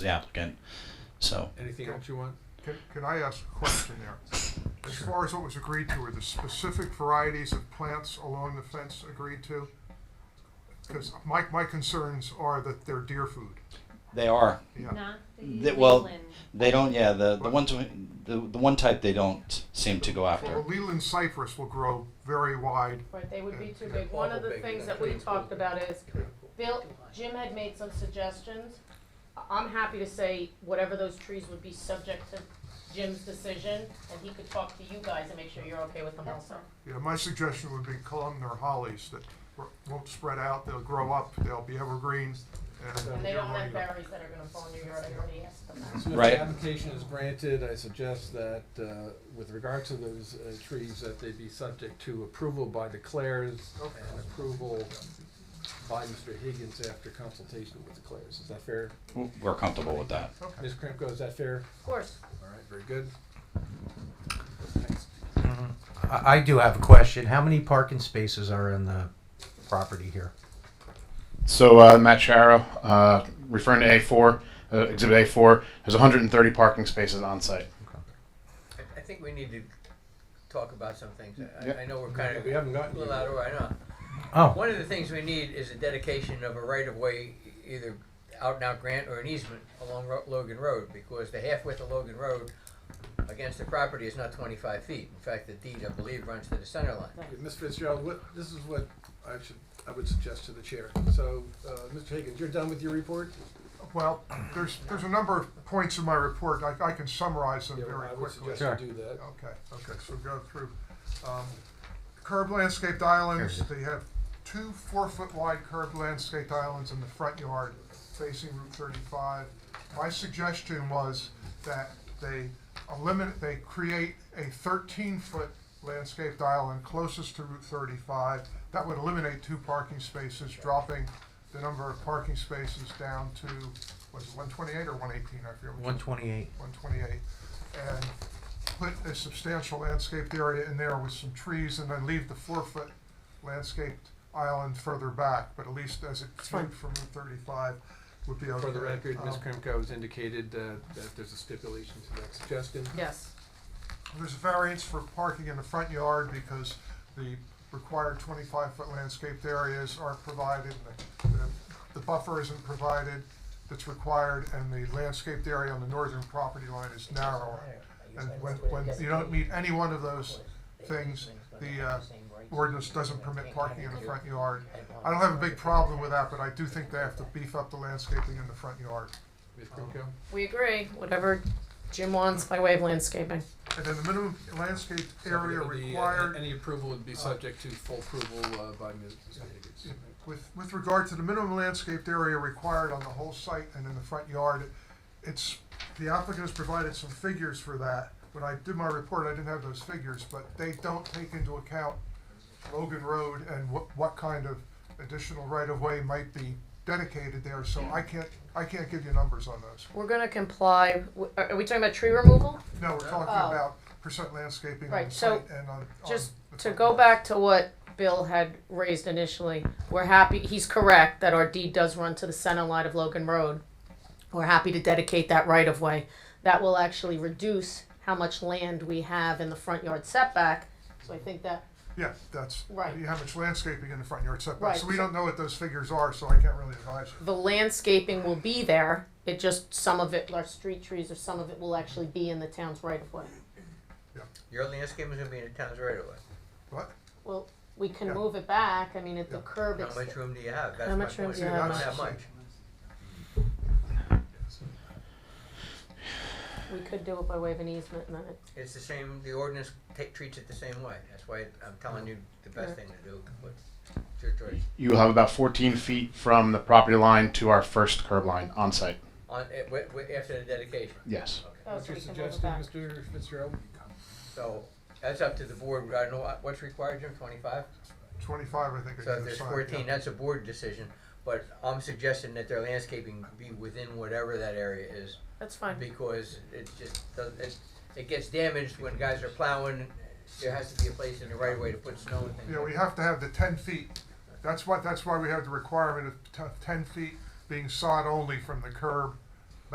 the applicant. So, Anything else you want? Can, can I ask a question there? As far as what was agreed to, were the specific varieties of plants along the fence agreed to? Because my, my concerns are that they're deer food. they are. Yeah. Not They- the well, Leland. They don't. Yeah, the the ones we- the the one type they don't seem to go Well, after. the Leland cypress will grow very wide. Right, they would be too Yeah. big. One of the Big, things yeah. that we talked about is, Bill, Jim had made some suggestions. I- I'm happy to say whatever those trees would be subject to Jim's decision, and he could talk to you guys and make sure you're okay with them also. You know, my suggestion would be columnar hollies that r- won't spread out, they'll grow up, they'll be evergreen, And and they they're don't have money. berries that are gonna fall in your yard, everybody asked them that. So if Right. the application is granted, I suggest that, uh, with regard to those uh, trees, that they be subject to approval by the Clares and approval by Mr. Higgins after consultation with the Clares. Is that fair? We're comfortable with that. Okay. Ms. Krimko, is that fair? Of course. All right, very good. I I do have a question. How many parking spaces are in the property here? So uh, Matt Sharo, uh, referring to A4, uh, Exhibit A4, there's 130 parking spaces on site. I, I think we need to talk about some things. I, Yeah. I know we're kind of We haven't gotten a little there. out of I know. Oh, One of the things we need is a dedication of a right of way, either out and out grant or an easement along Ro- Logan Road, because the half width of Logan Road against the property is not 25 feet. In fact, the deed, I believe, runs to the center line. Ms. Fitzgerald, what, this is what I should, I would suggest to the chair. So, uh, Mr. Higgins, you're done with your report? Well, there's, there's a number of points in my report, I, I can summarize them Yeah, well, very I would quickly. suggest you do that. Okay, okay, so go through. Um, Curb landscaped islands, they have two four-foot wide curb landscaped islands in the front yard facing Route thirty-five. My suggestion was that they eliminate, they create a thirteen-foot landscaped island closest to Route thirty-five. That would eliminate two parking spaces, dropping the number of parking spaces down to, was it one twenty-eight or one eighteen, I forget. which one. 128. 128, and put a substantial landscaped area in there with some trees, and then leave the four-foot landscaped island further back, but at least as it viewed from Route 35 would be okay. For the record, Ms. Um, Krimko has indicated uh, that there's a stipulation to that suggestion. Yes. There's a variance for parking in the front yard because the required 25-foot landscaped areas aren't provided, and the- the- the buffer isn't provided that's required, and the landscaped area on the northern property line is narrower. And when, when you don't meet any one of those things, the uh, ordinance doesn't permit parking in the front yard. I don't have a big problem with that, but I do think they have to beef up the landscaping in the front yard. Ms. Krimko? Um, We agree, whatever Jim wants by way of landscaping. And then the minimum landscaped area So it would be- uh, required. uh, Any approval would be subject to full approval uh, by Ms. Higgins. With, with regard to the minimum landscaped area required on the whole site and in the front yard, it's, the applicant has provided some figures for that. When I did my report, I didn't have those figures, but they don't take into account Logan Road and what, what kind of additional right-of-way might be dedicated there, so I can't, I can't give you numbers on those. We're gonna comply, w- are are we talking about tree removal? No, we're talking Oh. about percent landscaping on Right, the so site and on. on just the to front go yard. back to what Bill had raised initially, we're happy, he's correct that our deed does run to the center line of Logan Road. We're happy to dedicate that right of way. That will actually reduce how much land we have in the front yard setback. So I think that, Yeah, that's, Right. you have much landscaping in the front yard setback, Right, so we so- don't know what those figures are, so I can't really advise you. the landscaping will be there, it just, some of it, our street trees or some of it will actually be in the town's right of way. Your landscape is going to be in the town's right of way. What? Well, we can Yeah. move it back, I mean, at the Yeah. curb, How it's, much room do you have? That's How my much room point. do you have, Not Mike? that much. we could do it by way of an easement and then it It's the same, the ordinance ta- treats it the same way. That's why I'm telling you the best thing to do, but it's your choice. You will have about 14 feet from the property line to our first curb line on site. On, eh, wi- wi- after the dedication. Yes. Oh, What's so your we can move suggestion, it back. Mr. Fitzgerald? So that's up to the board. I don't know what- what's required, Jim, twenty-five? Twenty-five, I think. is So if the there's sign, fourteen, yeah. that's a board decision, but I'm suggesting that their landscaping be within whatever that area is, That's fine. because it just, does- it, it gets damaged when guys are plowing. There has to be a place in the right way to put snow and things Yeah, we like have to have the ten feet. That's what, that's why we have the requirement of t- ten feet being sawed only from the curb